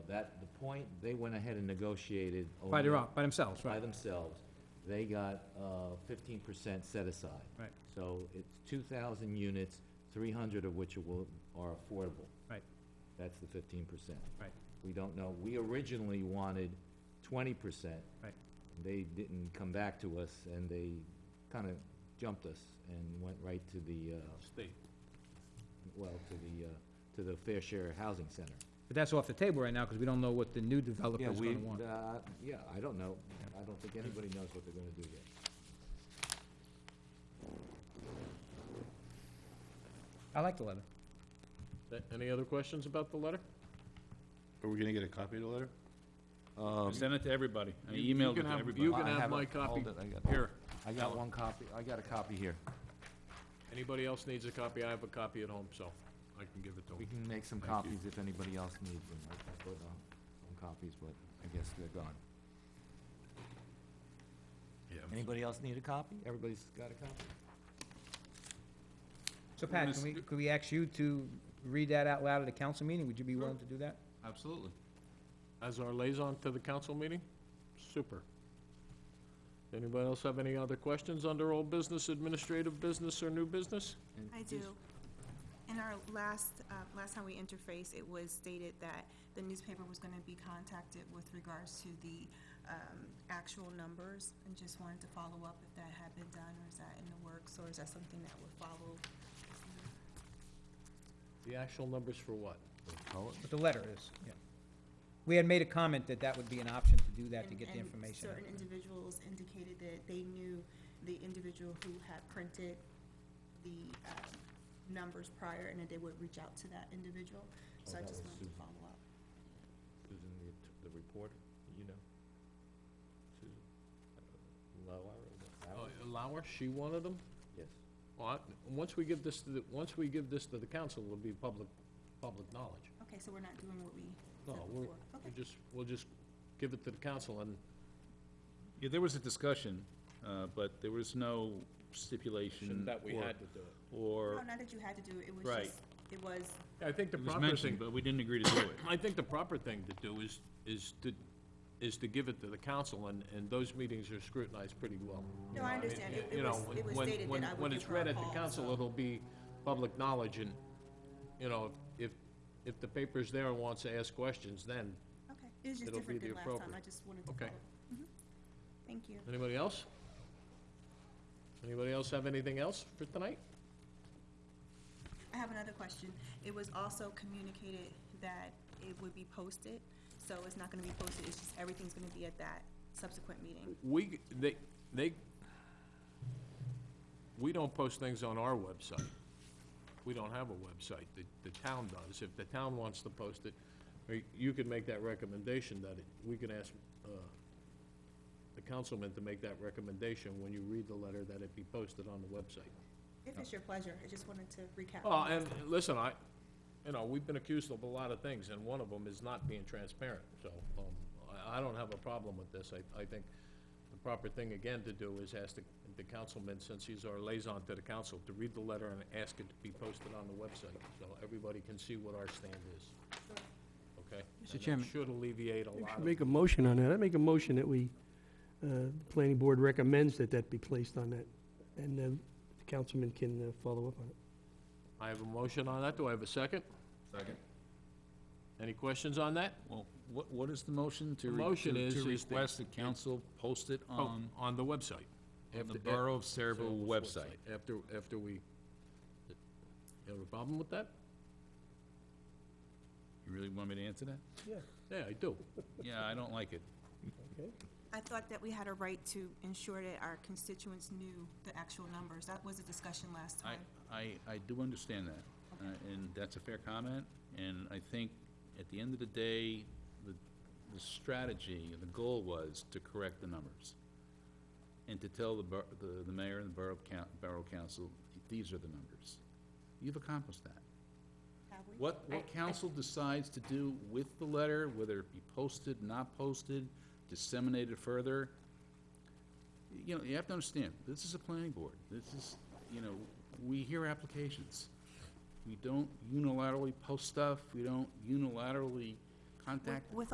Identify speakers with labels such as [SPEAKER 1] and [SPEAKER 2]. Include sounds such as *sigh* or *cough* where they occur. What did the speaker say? [SPEAKER 1] That, the point, they went ahead and negotiated.
[SPEAKER 2] By their
[SPEAKER 1] only
[SPEAKER 2] own, by themselves,
[SPEAKER 1] By
[SPEAKER 2] right?
[SPEAKER 1] themselves. They got uh, fifteen percent set aside.
[SPEAKER 2] Right.
[SPEAKER 1] So it's two thousand units, three hundred of which are will- are affordable.
[SPEAKER 2] Right,
[SPEAKER 1] That's the fifteen percent.
[SPEAKER 2] right,
[SPEAKER 1] We don't know, we originally wanted twenty percent.
[SPEAKER 2] right.
[SPEAKER 1] They didn't come back to us, and they kind of jumped us and went right to the, uh,
[SPEAKER 3] State.
[SPEAKER 1] well, to the, uh, to the Fair Share Housing Center.
[SPEAKER 2] But that's off the table right now, because we don't know what the new developer
[SPEAKER 1] Yeah,
[SPEAKER 2] is
[SPEAKER 1] we,
[SPEAKER 2] gonna want.
[SPEAKER 1] uh, yeah, I don't know. I don't think anybody knows what they're gonna do yet.
[SPEAKER 2] I like the letter.
[SPEAKER 3] A- Any other questions about the letter?
[SPEAKER 4] Are we gonna get a copy of the letter?
[SPEAKER 5] Send it to everybody. I
[SPEAKER 3] You- you
[SPEAKER 5] emailed it
[SPEAKER 3] can
[SPEAKER 5] to
[SPEAKER 3] have-
[SPEAKER 5] everybody.
[SPEAKER 3] You
[SPEAKER 1] Well, Um,
[SPEAKER 3] can
[SPEAKER 1] I
[SPEAKER 3] have
[SPEAKER 1] have it.
[SPEAKER 3] my
[SPEAKER 1] Hold
[SPEAKER 3] copy
[SPEAKER 1] it, I got-
[SPEAKER 3] here.
[SPEAKER 1] I got one copy, I got a copy here.
[SPEAKER 3] Anybody else needs a copy, I have a copy at home, so I can give it to
[SPEAKER 1] We
[SPEAKER 3] them.
[SPEAKER 1] can make some copies if anybody else needs them. I I put on some copies, but I guess they're gone. Anybody else need a copy? Everybody's got a copy?
[SPEAKER 2] So Pat, can we, could we ask you to read that out loud at a council meeting? Would you be willing to do that?
[SPEAKER 5] Absolutely.
[SPEAKER 3] As our liaison to the council meeting? Super. Anybody else have any other questions under old business, administrative business, or new business?
[SPEAKER 6] I do. In our last, uh, last time we interfaced, it was stated that the newspaper was gonna be contacted with regards to the, um, actual numbers, and just wanted to follow up if that had been done, or is that in the works, or is that something that would follow?
[SPEAKER 3] The actual numbers for what?
[SPEAKER 1] Oh,
[SPEAKER 2] What the letter is, yeah. We had made a comment that that would be an option to do that, to
[SPEAKER 6] And-
[SPEAKER 2] get the
[SPEAKER 6] and
[SPEAKER 2] information. out.
[SPEAKER 6] Certain individuals indicated that they knew the individual who had printed the, um, numbers prior, and that they would reach out to that individual, so
[SPEAKER 1] Oh,
[SPEAKER 6] I
[SPEAKER 1] that
[SPEAKER 6] just
[SPEAKER 1] was
[SPEAKER 6] wanted to
[SPEAKER 1] Susan.
[SPEAKER 6] follow up.
[SPEAKER 1] Susan, the, the reporter, you know? Susan,
[SPEAKER 3] Uh, Lauer, she wanted them?
[SPEAKER 1] Yes.
[SPEAKER 3] Well, I- once we give this, to the- once we give this to the council, it'll be public, public knowledge.
[SPEAKER 6] Okay, so we're not doing what we
[SPEAKER 3] No,
[SPEAKER 6] said
[SPEAKER 3] we're,
[SPEAKER 6] before? Okay.
[SPEAKER 3] we just, we'll just give it to the council and
[SPEAKER 5] Yeah, there was a discussion, uh, but there was no stipulation.
[SPEAKER 3] that we
[SPEAKER 5] or-
[SPEAKER 3] had to do it.
[SPEAKER 6] No,
[SPEAKER 5] Or,
[SPEAKER 6] not Oh, that you had to do it, it was
[SPEAKER 5] Right.
[SPEAKER 6] just, it was,
[SPEAKER 3] I think the
[SPEAKER 5] it was
[SPEAKER 3] proper thing,
[SPEAKER 5] mentioned, but we didn't agree to do it.
[SPEAKER 3] I think the proper thing to do is, is to, is to give it to the council, and, and those meetings are scrutinized pretty well.
[SPEAKER 6] no, I
[SPEAKER 3] I mean,
[SPEAKER 6] understand, it
[SPEAKER 3] you
[SPEAKER 6] it
[SPEAKER 3] know,
[SPEAKER 6] was, it was
[SPEAKER 3] when-
[SPEAKER 6] stated
[SPEAKER 3] when-
[SPEAKER 6] that I would
[SPEAKER 3] When
[SPEAKER 6] give
[SPEAKER 3] it's
[SPEAKER 6] her
[SPEAKER 3] read
[SPEAKER 6] a
[SPEAKER 3] at the
[SPEAKER 6] call,
[SPEAKER 3] council,
[SPEAKER 6] so-
[SPEAKER 3] it'll be public knowledge, and, you know, if, if the paper's there and wants to ask questions, then,
[SPEAKER 6] Okay, it was just
[SPEAKER 3] it'll be
[SPEAKER 6] different than
[SPEAKER 3] the
[SPEAKER 6] last time,
[SPEAKER 3] appropriate-
[SPEAKER 6] I just wanted to
[SPEAKER 3] Okay.
[SPEAKER 6] follow. Mhm. Thank you.
[SPEAKER 3] anybody else? Anybody else have anything else for tonight?
[SPEAKER 6] I have another question. It was also communicated that it would be posted, so it's not gonna be posted, it's just, everything's gonna be at that subsequent meeting.
[SPEAKER 3] We, they, they, we don't post things on our website. We don't have a website. The, the town does. If the town wants to post it, or you could make that recommendation that it, we can ask, uh, the councilman to make that recommendation when you read the letter that it be posted on the website.
[SPEAKER 6] If it's your pleasure, I just wanted to recap.
[SPEAKER 3] Well, and listen, I, you know, we've been accused of a lot of things, and one of them is not being transparent, so, um, I, I don't have a problem with this. I, I think the proper thing, again, to do is ask the, the councilman, since he's our liaison to the council, to read the letter and ask it to be posted on the website, so everybody can see what our stand is. Okay?
[SPEAKER 2] Mr. Chairman.
[SPEAKER 3] And that should alleviate a
[SPEAKER 7] We
[SPEAKER 3] lot
[SPEAKER 7] should
[SPEAKER 3] of,
[SPEAKER 7] make a motion on that. I make a motion that we, uh, the planning board recommends that that be placed on that, and uh, the councilman can uh, follow up on it.
[SPEAKER 3] I have a motion on that. Do I have a second?
[SPEAKER 5] Second.
[SPEAKER 3] Any questions on that?
[SPEAKER 5] *coughs* Well, what, what is the motion to?
[SPEAKER 3] The
[SPEAKER 5] re-
[SPEAKER 3] motion
[SPEAKER 5] to-
[SPEAKER 3] is-
[SPEAKER 5] To
[SPEAKER 3] is that-
[SPEAKER 5] request the council post it
[SPEAKER 3] Oh,
[SPEAKER 5] on
[SPEAKER 3] On the website.
[SPEAKER 5] Um, on the
[SPEAKER 3] After-
[SPEAKER 5] Borough of Saraville website.
[SPEAKER 3] After, after we, you have a problem with that?
[SPEAKER 5] You really want me to answer that?
[SPEAKER 3] Yeah, I do.
[SPEAKER 5] Yeah, I don't like it.
[SPEAKER 6] I thought that we had a right to ensure that our constituents knew the actual numbers. That was a discussion last
[SPEAKER 5] I,
[SPEAKER 6] time.
[SPEAKER 5] I, I do understand that, uh, and that's a fair comment, and I think at the end of the day, the, the strategy, the goal was to correct the numbers. And to tell the, bor- the, the mayor and the borough coun, borough council, these are the numbers. You've accomplished that.
[SPEAKER 6] Have we?
[SPEAKER 5] What, what council decides to do with the letter, whether it be posted, not posted, disseminated further, you know, you have to understand, this is a planning board. This is, you know, we hear applications. We don't unilaterally post stuff, we don't unilaterally contact
[SPEAKER 6] With